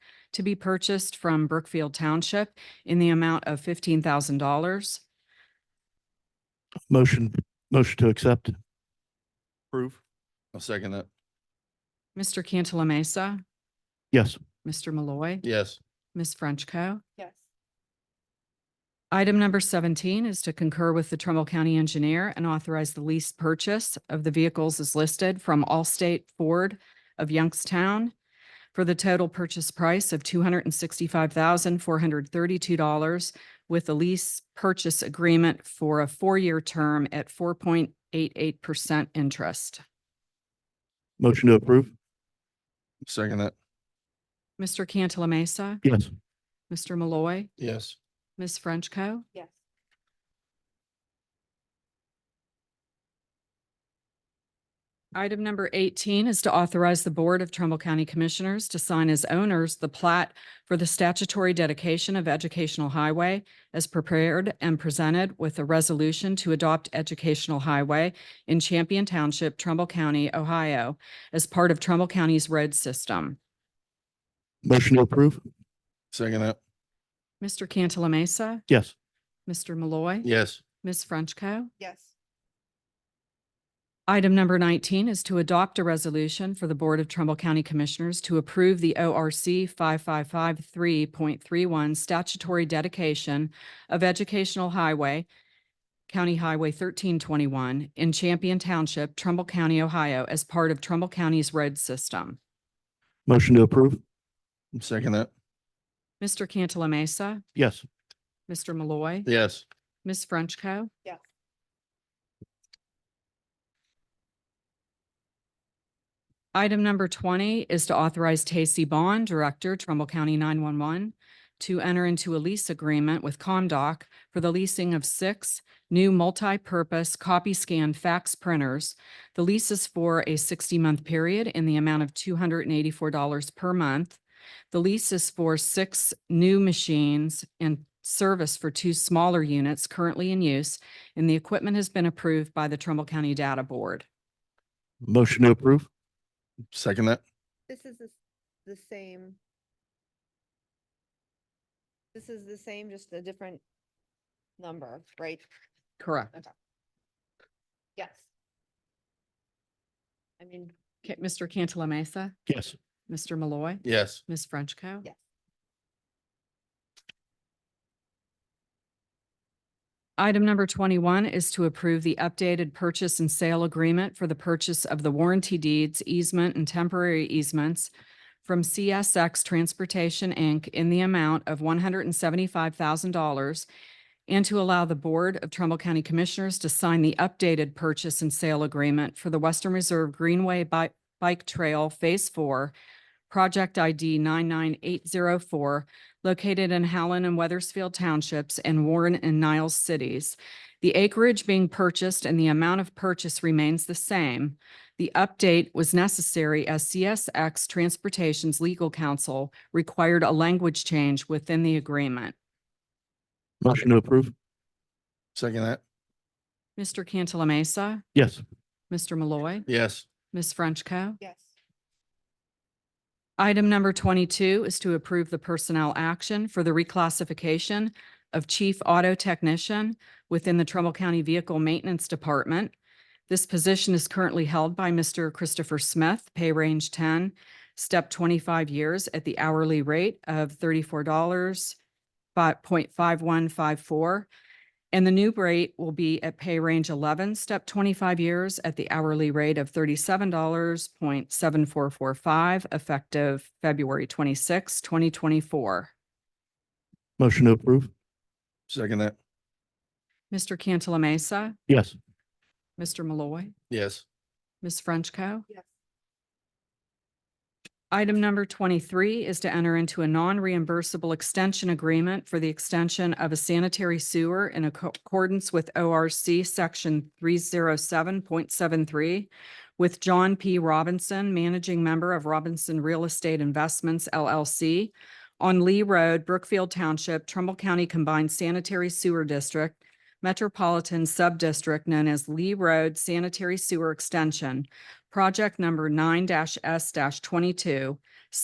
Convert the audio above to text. to be purchased from Brookfield Township in the amount of fifteen thousand dollars. Motion, motion to accept. Approve. I'll second that. Mr. Cantala Mesa, Yes. Mr. Malloy, Yes. Ms. Frenchco. yes, Item number seventeen is to concur with the Trumbull County Engineer and authorize the lease purchase of the vehicles as listed from Allstate Ford of Youngstown for the total purchase price of two hundred and sixty-five thousand, four hundred thirty-two dollars with a lease purchase agreement for a four-year term at four point eight eight percent interest. Motion to approve. Second that. Mr. Cantala Mesa, Yes. Mr. Malloy, Yes. Ms. Frenchco. yes, Item number eighteen is to authorize the Board of Trumbull County Commissioners to sign as owners the plat for the statutory dedication of Educational Highway as prepared and presented with a resolution to adopt Educational Highway in Champion Township, Trumbull County, Ohio, as part of Trumbull County's road system. Motion to approve. Second that. Mr. Cantala Mesa, Yes. Mr. Malloy. Yes. Ms. Frenchco. yes, Item number nineteen is to adopt a resolution for the Board of Trumbull County Commissioners to approve the ORC five five five three point three one statutory dedication of Educational Highway, County Highway thirteen twenty-one in Champion Township, Trumbull County, Ohio, as part of Trumbull County's road system. Motion to approve. Second that. Mr. Cantala Mesa, Yes. Mr. Malloy, Yes. Ms. Frenchco. yes, Item number twenty is to authorize Tacey Bond, Director, Trumbull County nine-one-one, to enter into a lease agreement with Comdoc for the leasing of six new multi-purpose copy scan fax printers. The lease is for a sixty-month period in the amount of two hundred and eighty-four dollars per month. The lease is for six new machines and service for two smaller units currently in use, and the equipment has been approved by the Trumbull County Data Board. Motion to approve. Second that. this is the s- the same. This is the same, just a different number, right? Correct. Yes. I mean, Ca- Mr. Cantala Mesa, Yes. Mr. Malloy, Yes. Ms. Frenchco. Yes. Item number twenty-one is to approve the updated purchase and sale agreement for the purchase of the warranty deeds, easement, and temporary easements from CSX Transportation, Inc. in the amount of one hundred and seventy-five thousand dollars and to allow the Board of Trumbull County Commissioners to sign the updated purchase and sale agreement for the Western Reserve Greenway Bi- Bike Trail Phase Four, Project ID nine nine eight zero four, located in Howland and Weathersfield Townships and Warren and Niles Cities. The acreage being purchased and the amount of purchase remains the same. The update was necessary as CSX Transportation's legal counsel required a language change within the agreement. Motion to approve. Second that. Mr. Cantala Mesa, Yes. Mr. Malloy, Yes. Ms. Frenchco. yes, Item number twenty-two is to approve the personnel action for the reclassification of chief auto technician within the Trumbull County Vehicle Maintenance Department. This position is currently held by Mr. Christopher Smith, pay range ten, step twenty-five years at the hourly rate of thirty-four dollars point five one five four. And the new rate will be at pay range eleven, step twenty-five years at the hourly rate of thirty-seven dollars point seven four four five, effective February 26, twenty twenty-four. Motion to approve. Second that. Mr. Cantala Mesa, Yes. Mr. Malloy, Yes. Ms. Frenchco. yes, Item number twenty-three is to enter into a non-reimbursable extension agreement for the extension of a sanitary sewer in acco- accordance with ORC Section three zero seven point seven three with John P. Robinson, Managing Member of Robinson Real Estate Investments LLC on Lee Road, Brookfield Township, Trumbull County Combined Sanitary Sewer District, Metropolitan Subdistrict known as Lee Road Sanitary Sewer Extension, project number nine S twenty-two,